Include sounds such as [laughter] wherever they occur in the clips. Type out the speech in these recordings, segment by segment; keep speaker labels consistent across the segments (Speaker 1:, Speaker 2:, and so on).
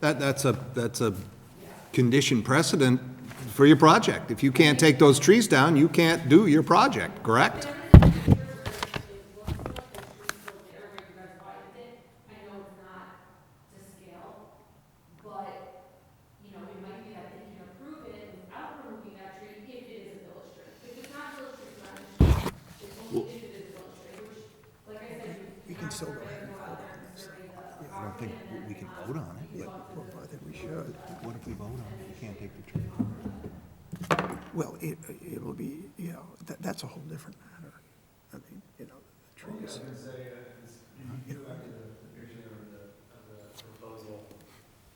Speaker 1: That, that's a, that's a condition precedent for your project. If you can't take those trees down, you can't do your project, correct?
Speaker 2: I know it's not to scale, but, you know, it might be that they can approve it without removing that tree if it is a village tree. If it's not a village tree, it's not an issue. It's only if it is a village tree, which, like I said, you
Speaker 3: We can still go ahead and vote on this.
Speaker 1: I don't think we can vote on it, but
Speaker 3: Well, I think we should.
Speaker 1: what if we vote on it? You can't take the tree.
Speaker 3: Well, it, it'll be, you know, that, that's a whole different matter. I mean, you know, the trees. You know,
Speaker 4: proposal,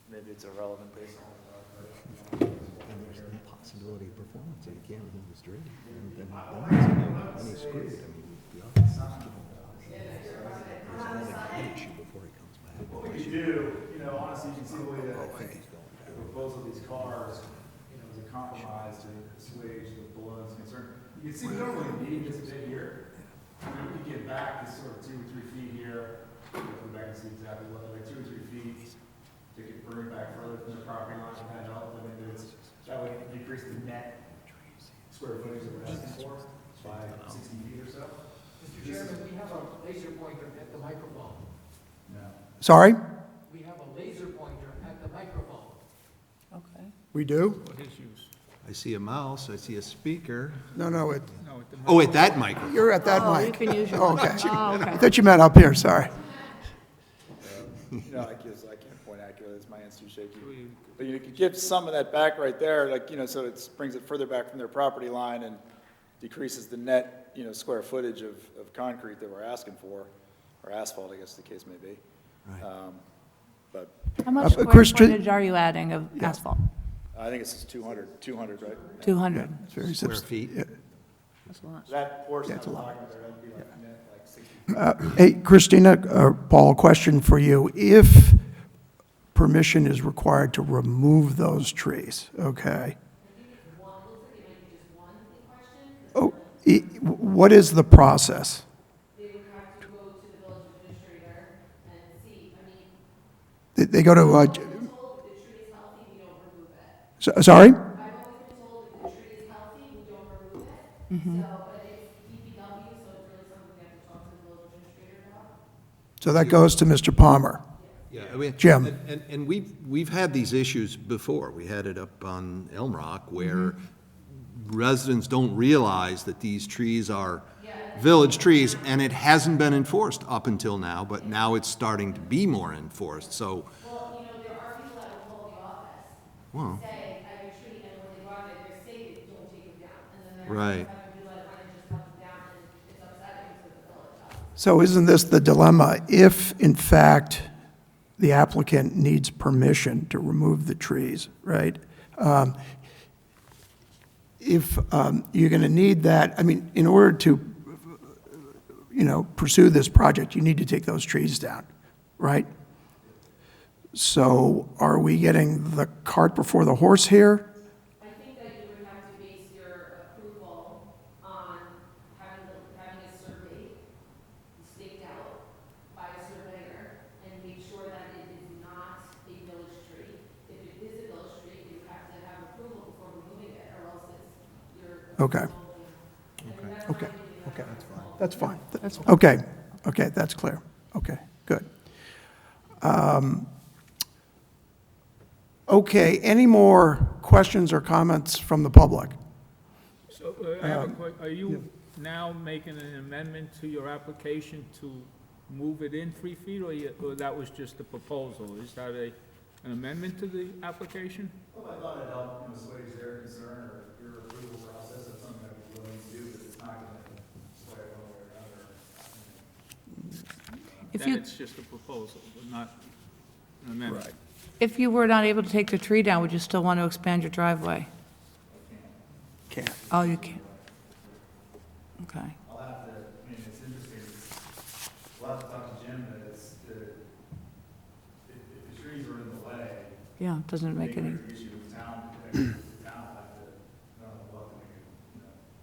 Speaker 4: maybe it's irrelevant based on.
Speaker 5: and there's no possibility of performance, and you can't remove this drain, and then, then it's, you know, then he's screwed, I mean, the office is giving him a lot of- There's another gun issue before he comes back.
Speaker 4: What we do, you know, honestly, you can see the way that like the proposal of these cars, you know, is a compromise to assuage the balloon's concern. You can see we don't really need this bit here. I mean, we can get back this sort of two or three feet here, you know, come back and see exactly what, like two or three feet. They could bring it back further from the property line and head up, I mean, there's, that would decrease the net square footage that we're asking for by sixty feet or so.
Speaker 6: Mr. Chairman, we have a laser pointer at the microphone.
Speaker 4: No.
Speaker 3: Sorry?
Speaker 6: We have a laser pointer at the microphone.
Speaker 7: Okay.
Speaker 3: We do?
Speaker 1: I see a mouse, I see a speaker.
Speaker 3: No, no, it,
Speaker 1: Oh, wait, that microphone.
Speaker 3: you're at that
Speaker 7: Oh, you
Speaker 3: mic.
Speaker 7: can use your.
Speaker 3: Okay. [laughs]
Speaker 7: Oh, okay.
Speaker 3: I thought you meant up here, sorry.
Speaker 4: You know, I guess I can't point accurately, it's my hand's too shaky. But you could give some of that back right there, like, you know, so it brings it further back from their property line and decreases the net, you know, square footage of, of concrete that we're asking for, or asphalt, I guess the case may be. Um, But
Speaker 7: How much
Speaker 3: Uh,
Speaker 7: square
Speaker 3: Chris, ju-
Speaker 7: footage are you adding of asphalt?
Speaker 4: I think it's 200, 200, right?
Speaker 7: 200?
Speaker 3: It's very subs-
Speaker 1: Square feet.
Speaker 3: yeah.
Speaker 7: That's a lot.
Speaker 4: That portion
Speaker 3: Yeah,
Speaker 4: I'm
Speaker 3: it's a lot.
Speaker 4: talking about, there, that'd be like net, like 60.
Speaker 3: Hey, Christina, uh, Paul, question for you. If permission is required to remove those trees, okay? Oh, i- what is the process?
Speaker 2: they would have to go to the village administrator and see, I mean,
Speaker 3: They- They go to, uh, j-
Speaker 2: told if the tree is healthy, we don't remove it.
Speaker 3: so- sorry?
Speaker 2: I've always been told if the tree is healthy, we don't remove it. So, but it's DPW, so it's really something we have to talk to the village administrator about.
Speaker 3: So that goes to Mr. Palmer.
Speaker 1: Yeah, I mean.
Speaker 3: Jim.
Speaker 1: and- And, and we've, we've had these issues before. We had it up on Elm Rock where
Speaker 3: Mm-hmm.
Speaker 1: residents don't realize that these trees are village trees, and it hasn't been enforced up until now, but now it's starting to be more enforced, so. Well,
Speaker 2: Say, I have a tree, and when they go out there, they're stated, don't take it down. And then they're
Speaker 1: Right.
Speaker 2: like, I would do it, I just cut them down, and it's upsetting to the village.
Speaker 3: So isn't this the dilemma? If, in fact, the applicant needs permission to remove the trees, right? Um, If um, you're going to need that, I mean, in order to, you know, pursue this project, you need to take those trees down, right? So are we getting the cart before the horse here?
Speaker 2: I think that you would have to base your approval on having, the- having a survey staked out by a surveyor and make sure that it is not a village tree. If it is a village tree, you have to have approval before removing it, or else it's your.
Speaker 3: Okay. Okay, okay, that's fine. That's fine. Okay, okay, that's clear. Okay, good. Um, Okay, any more questions or comments from the public?
Speaker 8: So uh, I have a question. Are you now making an amendment to your application to move it in three feet, or you- or that was just a proposal? Is that a, an amendment to the application?
Speaker 4: Well, I thought it helped, you know, assuage their concern or your approval process, that's something that we're willing to do, but it's not gonna sway one way or another.
Speaker 7: If
Speaker 8: Then
Speaker 7: you,
Speaker 8: it's just a proposal, but not an amendment.
Speaker 7: if you were not able to take the tree down, would you still want to expand your driveway?
Speaker 3: Can't.
Speaker 7: Oh, you can't. Okay.
Speaker 4: I'll have to, I mean, it's interesting, it's- we'll have to talk to Jim, but it's, the, if, if the trees are in the way,
Speaker 7: Yeah, doesn't
Speaker 4: they
Speaker 7: make any,
Speaker 4: could issue with town, protecting